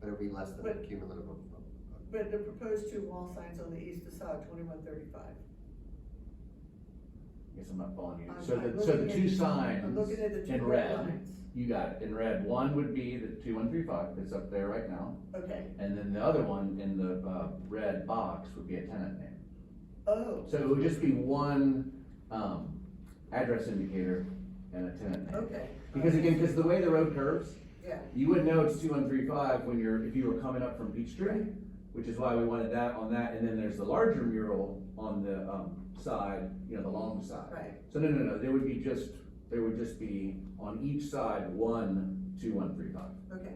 but it'll be less than the cumulative of. But the proposed two wall signs on the east facade, twenty-one thirty-five. Guess I'm not following you. I'm- So I'm the, so the looking two at- I'm signs looking at the two in red red, lines. you got it, in red, one would be the two one three five that's up there right now. Okay, And then the other one in the, uh, red box would be a tenant name. oh, So it would just be one, um, address indicator and a tenant name. okay. Because again, because the way the road curves, Yeah, you wouldn't know it's two one three five when you're, if you were coming up from Peachtree, which is why we wanted that on that, and then there's the larger mural on the, um, side, you know, the long side. right, So no, no, no, there would be just, there would just be on each side, one, two, one, three, five. okay.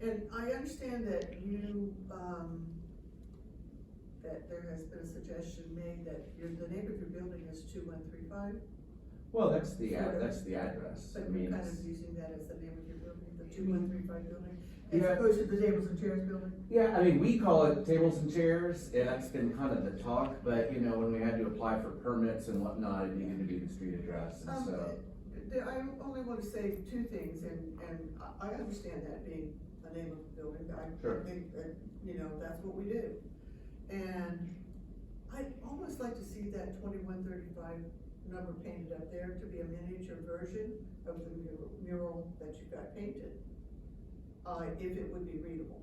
And I understand that you, um, that there has been a suggestion made that your, the name of your building is two one three five, Well, that's the, ad- that's the address, so I you're mean, kind it's- of using that as the name of your building, the two one three five building, as Yeah. opposed to the tables and chairs building? yeah, I mean, we call it tables and chairs, and that's been kind of the talk, but you know, when we had to apply for permits and whatnot, it needed to be the street address, and Um, so. th- th- I only want to say two things, and, and I- I understand that being the name of the building, I Sure. think that, you know, that's what we do. And I'd almost like to see that twenty-one thirty-five number painted up there to be a miniature version of the mural, mural that you got painted. Uh, if it would be readable,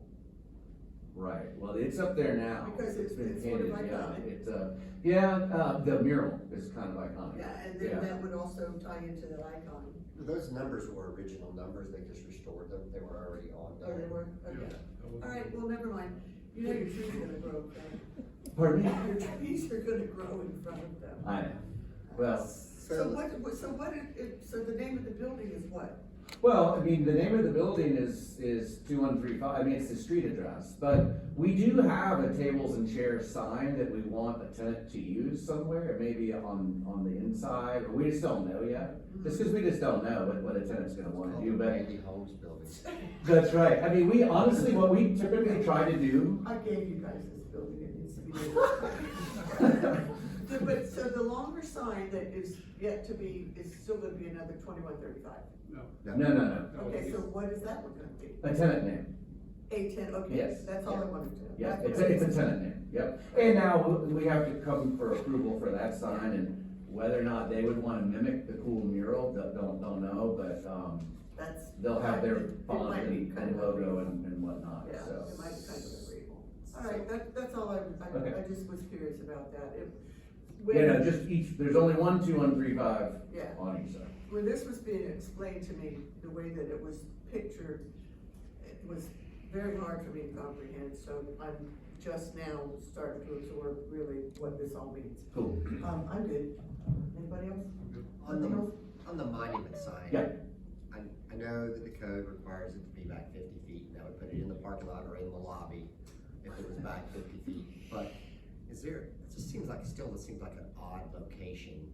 Right, well, it's up there now. Because it's- been it's sort of painted, yeah, iconic. It's, uh, yeah, uh, the mural is kind of iconic. yeah, and then Yeah. that would also tie into that icon, Those numbers were original numbers, they just restored them, Oh, they were already on or they there. were, okay, all right, well, never mind, you know your trees are gonna grow, okay? Pardon me? Your trees are gonna grow in front of them. I know, well. So what, what- so what, it- it, so the name of the building is what? Well, I mean, the name of the building is, is two one three five, I mean, it's the street address, but we do have a tables and chairs sign that we want a tenant to use somewhere, maybe on, on the inside, or we just don't know yet. Just because we just don't know what, what a tenant's gonna wanna do, but, Andy Holmes building. that's right, I mean, we honestly, what we typically try to do. I gave you guys this building, it needs to be. there. But, so the longer sign that is yet to be, is still gonna be another twenty-one thirty-five. No, no, no, Okay, so what is that one gonna be? a tenant name. A ten, okay, Yes. that's all I wanted to. know. Yeah, That's it's what I- a, it's a tenant name, yep. And now we we have to come for approval for that sign and whether or not they would wanna mimic the cool mural, don't, don't, don't know, but, um, That's. they'll have it- their it font might be and, kind and of logo agreeable. and, and whatnot, Yeah, so. it might be kind of agreeable. All right, that, that's all I, I, I Okay. just was curious about that. If- Yeah, no, when- just each, there's only one, two, one, three, five Yeah, on each side. when this was being explained to me, the way that it was pictured, it was very hard for me to comprehend, so I'm just now starting to absorb really what this all means. Cool. Um, I'm good. Anybody else? On Anything the, else? on the monument sign. Yeah. I, I know that the code requires it to be back fifty feet, and I would put it in the parking lot or in the lobby if it was back fifty feet, but is there, it just seems like, still, it seems like an odd location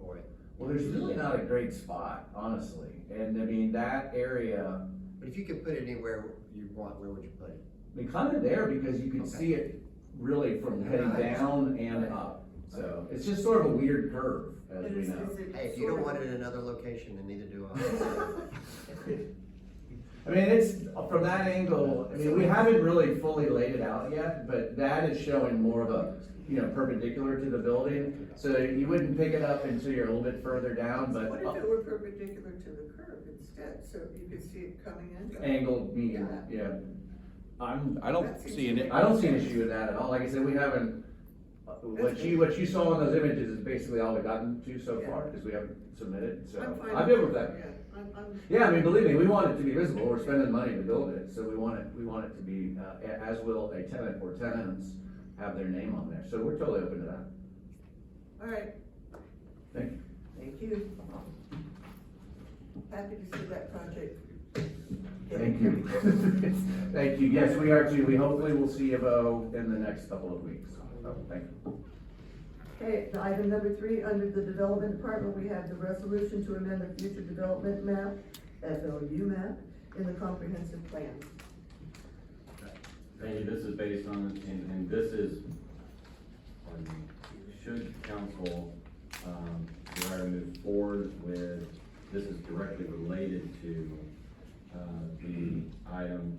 for it. Well, there's really not a great spot, honestly, and I mean, that area, But if you could put it anywhere you want, where would you put it? I mean, kinda there because you can Okay. see it really from heading Yeah. down and up. So it's just sort of a weird curve, as It we is- know. is it Hey, if you don't sort want of- it in another location, then neither do I. I mean, it's, from that angle, I mean, we haven't really fully laid it out yet, but that is showing more of a, you know, perpendicular to the building. So you wouldn't pick it up until you're a little bit further down, What if uh, but it were perpendicular to the curb instead, so you could see it coming in? angled median, yeah. I'm, I That don't seems see an, to be- i- I don't see an issue with that at all. Like I said, we haven't, what you, what you saw in those images is basically all we've gotten to so far, because we haven't submitted, so. I'm fine. I'm good with that. Yeah, I'm, I'm. Yeah, I mean, believe me, we want it to be visible, we're spending money to build it, so we want it, we want it to be, uh, a- as will a tenant or tenants have their name on there, so we're totally open to that. All right. Thank you. Thank you. Happy to see that project. Thank you. Thank you, yes, we are too, we hopefully will see you about in the next couple of weeks, so, thank you. Okay, the item number three, under the development department, we have the resolution to amend the future development map, FLU map, in the comprehensive plan. Thank you, this is based on, and, and this is, pardon me, should council, um, desire to move forward with, this is directly related to, uh, the item